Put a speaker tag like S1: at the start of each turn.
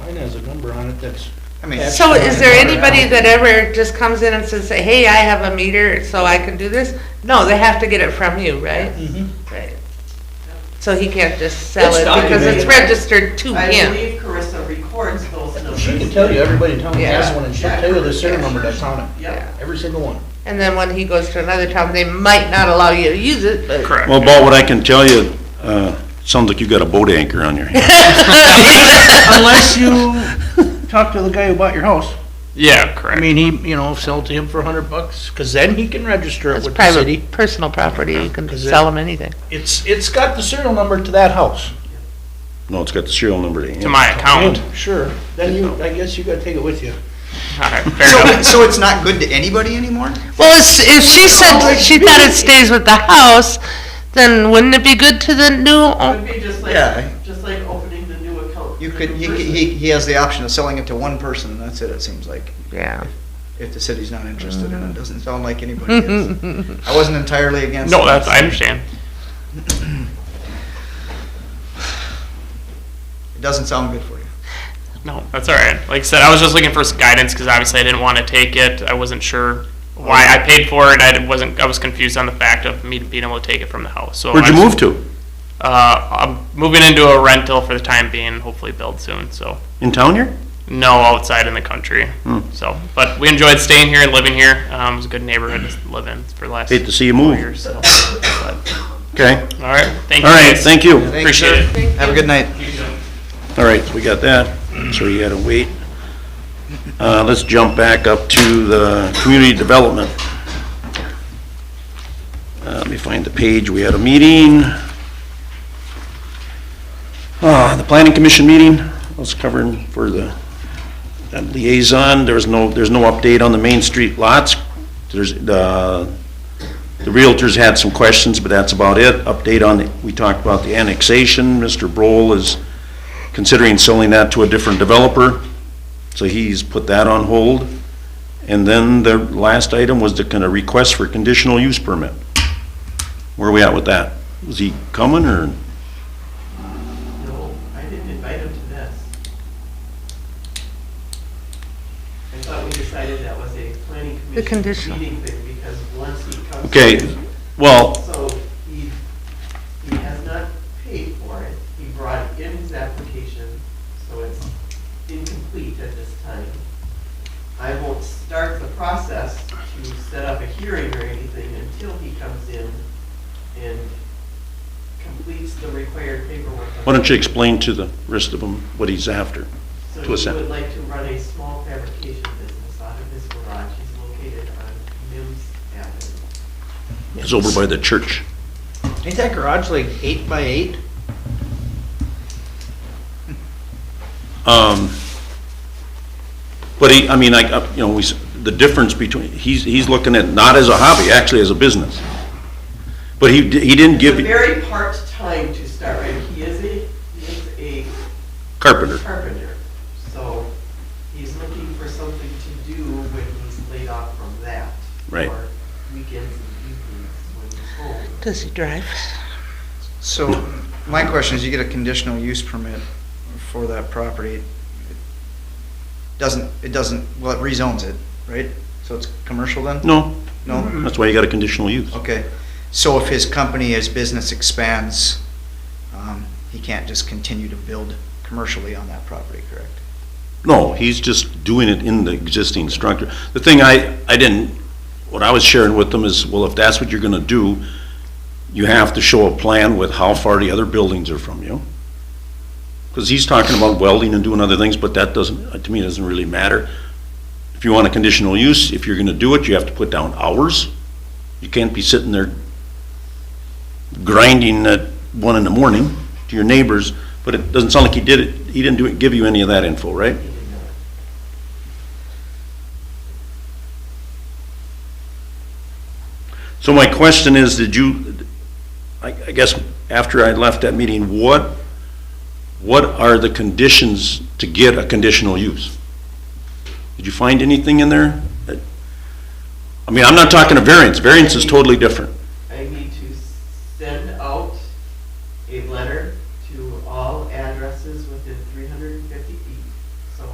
S1: line has a number on it that's.
S2: I mean,
S3: So is there anybody that ever just comes in and says, hey, I have a meter, so I can do this? No, they have to get it from you, right?
S1: Mhm.
S3: Right. So he can't just sell
S1: It's
S3: it because it's
S1: documented.
S3: registered to
S4: I
S3: him.
S4: believe Carissa records those numbers.
S1: She can tell you, everybody in town has
S3: Yeah.
S1: one, and she'll tell you the serial number that's on it,
S4: Yep.
S1: every single one.
S3: And then when he goes to another town, they might not allow you to use it, but.
S5: Correct.
S6: Well, Bob, what I can tell you, uh, sounds like you got a boat anchor on your hand.
S1: Unless you talk to the guy who bought your house.
S5: Yeah,
S1: I
S5: correct.
S1: mean, he, you know, sell to him for a hundred bucks, because then he can register it
S3: It's
S1: with the city.
S3: private, personal property, you can
S1: Is it-
S3: sell them anything.
S1: It's, it's got the serial number to that house.
S6: No, it's got the serial number to
S5: To
S6: him.
S5: my account.
S1: And, Sure, then you, I guess you gotta take it with you.
S5: Alright, fair
S2: So,
S5: enough.
S2: so it's not good to anybody anymore?
S3: Well, it's- if she said she thought it stays with the house, then wouldn't it be good to the new,
S4: It
S3: own-
S4: would be just
S2: Uh, Yeah.
S4: like, just like opening the new account.
S2: You
S4: for
S2: could,
S4: the
S2: he,
S4: new person.
S2: he, he has the option of selling it to one person, and that's it, it seems like,
S3: yeah.
S2: if the city's not interested in it. Doesn't sound like anybody is. I wasn't entirely against.
S5: No,
S2: it.
S5: that's, I understand.
S2: It doesn't sound good for you.
S5: No, that's alright. Like I said, I was just looking for some guidance because obviously I didn't want to take it. I wasn't sure why I paid for it. I wasn't, I was confused on the fact of me being able to take it from the house. So
S6: Where'd you
S5: Oh, I was-
S6: move to?
S5: Uh, I'm moving into a rental for the time being, hopefully build soon, so.
S6: In town here?
S5: No, outside in the country.
S6: Hmm.
S5: So, but we enjoyed staying here and living here. Um, it was a good neighborhood to live in for the last
S6: Hate to see you
S5: four
S6: move.
S5: years. So. But,
S6: Okay,
S5: all right, thank you.
S6: all right,
S5: guys.
S6: thank you.
S2: Thank you,
S5: Appreciate
S2: sir.
S5: it.
S2: Have a good night.
S6: All right, we got that, so you gotta wait. Uh, let's jump back up to the community development. Uh, let me find the page, we had a meeting. Uh, the planning commission meeting, I was covering for the that liaison, there was no, there's no update on the Main Street lots. There's, uh, the realtors had some questions, but that's about it. Update on, the- we talked about the annexation, Mr. Broll is considering selling that to a different developer, so he's put that on hold. And then the last item was the kind of request for conditional use permit. Where are we at with that? Was he coming, or,
S4: No, I didn't invite him to this. I thought we decided that was a planning
S3: The
S4: commission
S3: conditional.
S4: meeting thing, because once he comes.
S6: okay, well,
S4: So he, he has not paid for it, he brought in his application, so it's incomplete at this time. I won't start the process to set up a hearing or anything until he comes in and completes the required paperwork.
S6: why don't you explain to the rest of them what he's after?
S4: So
S6: to us
S4: he
S6: then?
S4: would like to run a small fabrication business out of his garage, he's located on Mims Avenue.
S6: It's over by the church.
S1: Ain't that garage like eight by eight?
S6: Um, But he, I mean, like, uh, you know, we, s- the difference between, he's, he's looking at, not as a hobby, actually as a business. But he, d- he didn't
S4: He's
S6: give,
S4: a very part-time to start, right? He is a, he is a
S6: carpenter,
S4: carpenter, so he's looking for something to do when he's laid off from that.
S6: Right.
S4: Or weekends and evenings when he's home.
S3: Does he drive?
S2: So, my question is, you get a conditional use permit for that property. It Doesn't, it doesn't, well, it rezones it, right? So it's commercial then?
S6: no,
S2: No?
S6: that's why you got a conditional use.
S2: Okay. So if his company, his business expands, um, he can't just continue to build commercially on that property, correct?
S6: No, he's just doing it in the existing structure. The thing I, I didn't, what I was sharing with them is, well, if that's what you're gonna do, you have to show a plan with how far the other buildings are from you. Because he's talking about welding and doing other things, but that doesn't, to me, it doesn't really matter. If you want a conditional use, if you're gonna do it, you have to put down hours. You can't be sitting there grinding at one in the morning to your neighbors, but it doesn't sound like he did it, he didn't do it, give you any of that info, right? So my question is, did you, I, I guess after I left that meeting, what, what are the conditions to get a conditional use? Did you find anything in there? that- I mean, I'm not talking a variance, variance is totally different.